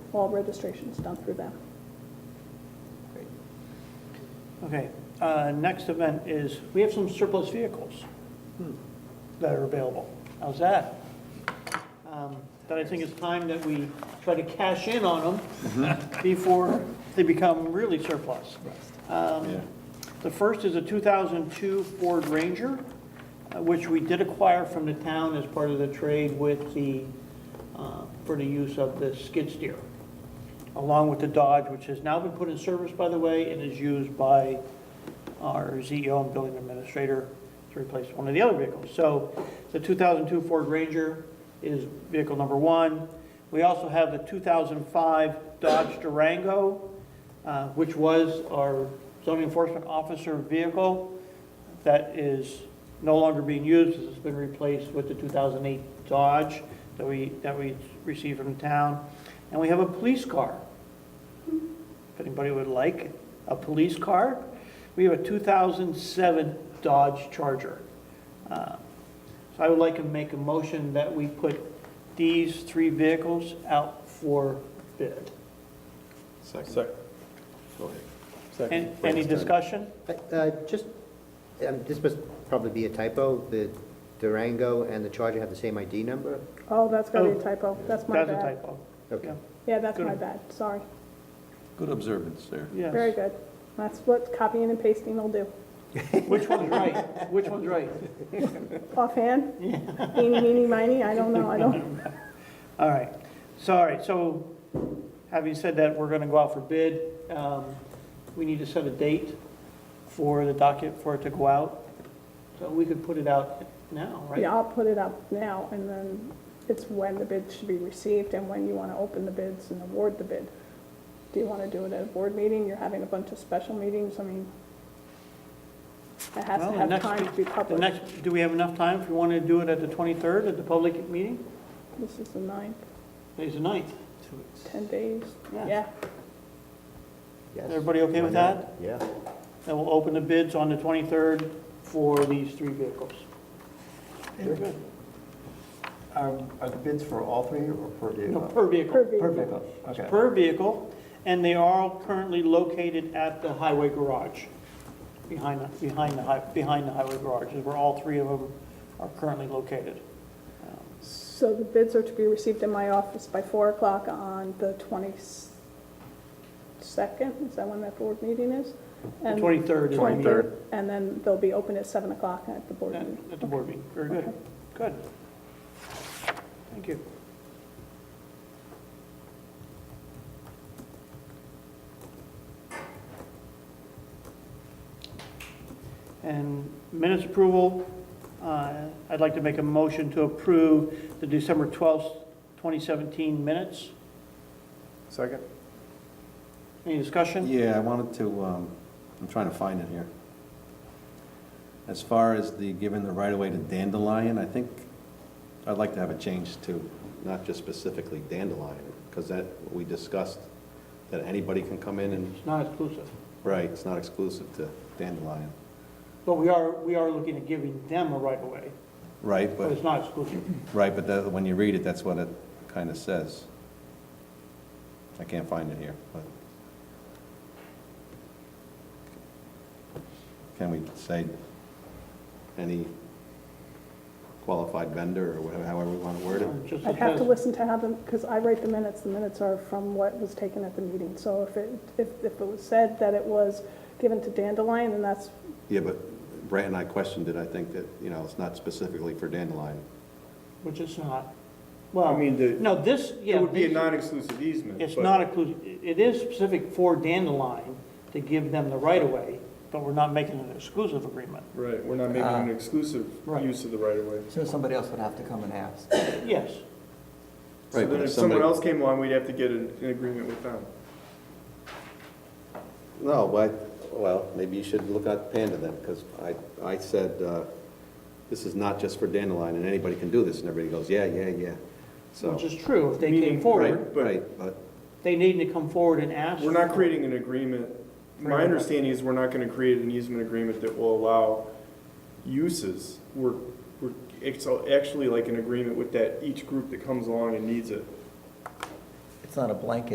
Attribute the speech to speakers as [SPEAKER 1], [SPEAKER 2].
[SPEAKER 1] all registrations done through them.
[SPEAKER 2] Great. Okay, uh, next event is, we have some surplus vehicles that are available. How's that? Um, But I think it's time that we try to cash in on them before they become really surplus. Um, The first is a 2002 Ford Ranger, uh, which we did acquire from the town as part of the trade with the, uh, for the use of the skid steer, along with the Dodge, which has now been put in service, by the way, and is used by our CEO and building administrator to replace one of the other vehicles. So the 2002 Ford Ranger is vehicle number one. We also have the 2005 Dodge Durango, uh, which was our zoning enforcement officer vehicle that is no longer being used, it's been replaced with the 2008 Dodge that we, that we received from the town. And we have a police car. If anybody would like a police car, we have a 2007 Dodge Charger. Uh, So I would like to make a motion that we put these three vehicles out for bid.
[SPEAKER 3] Second. Go ahead.
[SPEAKER 2] An- Any discussion?
[SPEAKER 4] Uh, uh, Just, um, this must probably be a typo, the Durango and the Charger have the same ID number?
[SPEAKER 1] Oh, that's gotta be
[SPEAKER 2] Oh.
[SPEAKER 1] a typo. That's my
[SPEAKER 2] That's a
[SPEAKER 1] bad.
[SPEAKER 2] typo.
[SPEAKER 4] Okay.
[SPEAKER 1] Yeah, that's
[SPEAKER 2] Good.
[SPEAKER 1] my bad. Sorry.
[SPEAKER 3] Good observance there.
[SPEAKER 2] Yes.
[SPEAKER 1] Very good. That's what copying and pasting will do.
[SPEAKER 2] Which one's right? Which one's right?
[SPEAKER 1] Offhand? Eeny, meeny, miny, I don't know, I don't,
[SPEAKER 2] All right, so, all right, so having said that, we're gonna go out for bid. Um, We need to set a date for the docket, for it to go out. So we could put it out now, right?
[SPEAKER 1] yeah, I'll put it up now, and then it's when the bid should be received and when you want to open the bids and award the bid. Do you want to do it at a board meeting? You're having a bunch of special meetings, I mean, it has
[SPEAKER 2] Well,
[SPEAKER 1] to
[SPEAKER 2] the
[SPEAKER 1] have
[SPEAKER 2] next
[SPEAKER 1] time to be
[SPEAKER 2] The
[SPEAKER 1] published.
[SPEAKER 2] next, do we have enough time if we wanna do it at the 23rd at the public meeting?
[SPEAKER 1] This is the ninth,
[SPEAKER 2] Today's the 9th.
[SPEAKER 1] 10 days,
[SPEAKER 2] Yeah.
[SPEAKER 1] yeah.
[SPEAKER 4] Yes.
[SPEAKER 2] Everybody okay
[SPEAKER 4] Why
[SPEAKER 2] with
[SPEAKER 4] not? Yeah.
[SPEAKER 2] And we'll open the bids on the 23rd for these three vehicles. Very good.
[SPEAKER 5] Um, Are the bids for all three or per
[SPEAKER 2] No,
[SPEAKER 5] vehicle?
[SPEAKER 2] per vehicle.
[SPEAKER 1] Per vehicle.
[SPEAKER 5] Per vehicle, okay.
[SPEAKER 2] per vehicle, and they are currently located at the highway garage, behind, the- behind the, hi- behind the highway garage, is where all three of them are currently located. Uh,
[SPEAKER 1] So the bids are to be received in my office by 4 o'clock on the 22nd, is that when that board meeting is?
[SPEAKER 2] The
[SPEAKER 1] And-
[SPEAKER 2] 23rd is the meeting.
[SPEAKER 3] 23rd.
[SPEAKER 1] And then they'll be open at 7 o'clock at the board
[SPEAKER 2] At
[SPEAKER 1] meeting.
[SPEAKER 2] at the board meeting, very good, good. Thank you. And minutes approval, uh, I'd like to make a motion to approve the December 12th, 2017 minutes.
[SPEAKER 5] Second?
[SPEAKER 2] Any discussion?
[SPEAKER 3] Yeah, I wanted to, um, I'm trying to find it here. As far as the, giving the right-of-way to Dandelion, I think I'd like to have it changed to not just specifically Dandelion, because that, we discussed that anybody can come in and,
[SPEAKER 2] It's not exclusive,
[SPEAKER 3] right, it's not exclusive to Dandelion.
[SPEAKER 2] but we are, we are looking at giving them a right of way,
[SPEAKER 3] Right,
[SPEAKER 2] but
[SPEAKER 3] but,
[SPEAKER 2] it's not exclusive.
[SPEAKER 3] right, but that- when you read it, that's what it kind of says. I can't find it here, but. Can we say any qualified vendor or whatever, however we want to word it?
[SPEAKER 2] Just
[SPEAKER 1] I'd have
[SPEAKER 2] as-
[SPEAKER 1] to listen to how them, because I write the minutes, the minutes are from what was taken at the meeting. So if it, if if it was said that it was given to Dandelion, then that's,
[SPEAKER 3] Yeah, but Brett and I questioned it, I think that, you know, it's not specifically for Dandelion.
[SPEAKER 2] Which it's not.
[SPEAKER 5] I
[SPEAKER 2] Well,
[SPEAKER 5] mean, the-
[SPEAKER 2] no, this, yeah.
[SPEAKER 5] It would be a
[SPEAKER 2] these-
[SPEAKER 5] non-exclusive easement.
[SPEAKER 2] It's
[SPEAKER 5] but-
[SPEAKER 2] not inclusive, it is specific for Dandelion to give them the right of way, but we're not making an exclusive agreement.
[SPEAKER 6] Right, we're not making
[SPEAKER 7] Ah.
[SPEAKER 3] Uh,
[SPEAKER 6] an exclusive
[SPEAKER 2] Right.
[SPEAKER 6] use of the right of way.
[SPEAKER 7] So somebody else would have to come and ask.
[SPEAKER 2] Yes,
[SPEAKER 3] Right,
[SPEAKER 6] So
[SPEAKER 3] but
[SPEAKER 6] then
[SPEAKER 3] if
[SPEAKER 6] if someone
[SPEAKER 3] somebody-
[SPEAKER 6] else came along, we'd have to get an, an agreement with them.
[SPEAKER 3] No, well, well, maybe you should look at Panda then, because I, I said, uh, this is not just for Dandelion, and anybody can do this, and everybody goes, yeah, yeah, yeah. So,
[SPEAKER 2] which is true. If they came
[SPEAKER 6] Meaning-
[SPEAKER 2] forward,
[SPEAKER 3] right,
[SPEAKER 6] but-
[SPEAKER 3] right, but,
[SPEAKER 2] they need to come forward and ask.
[SPEAKER 6] We're not creating an agreement. My
[SPEAKER 2] Right.
[SPEAKER 6] understanding is we're not gonna create an easement agreement that will allow uses. We're, we're, it's actually like an agreement with that, each group that comes along and needs it.
[SPEAKER 7] It's not a blanket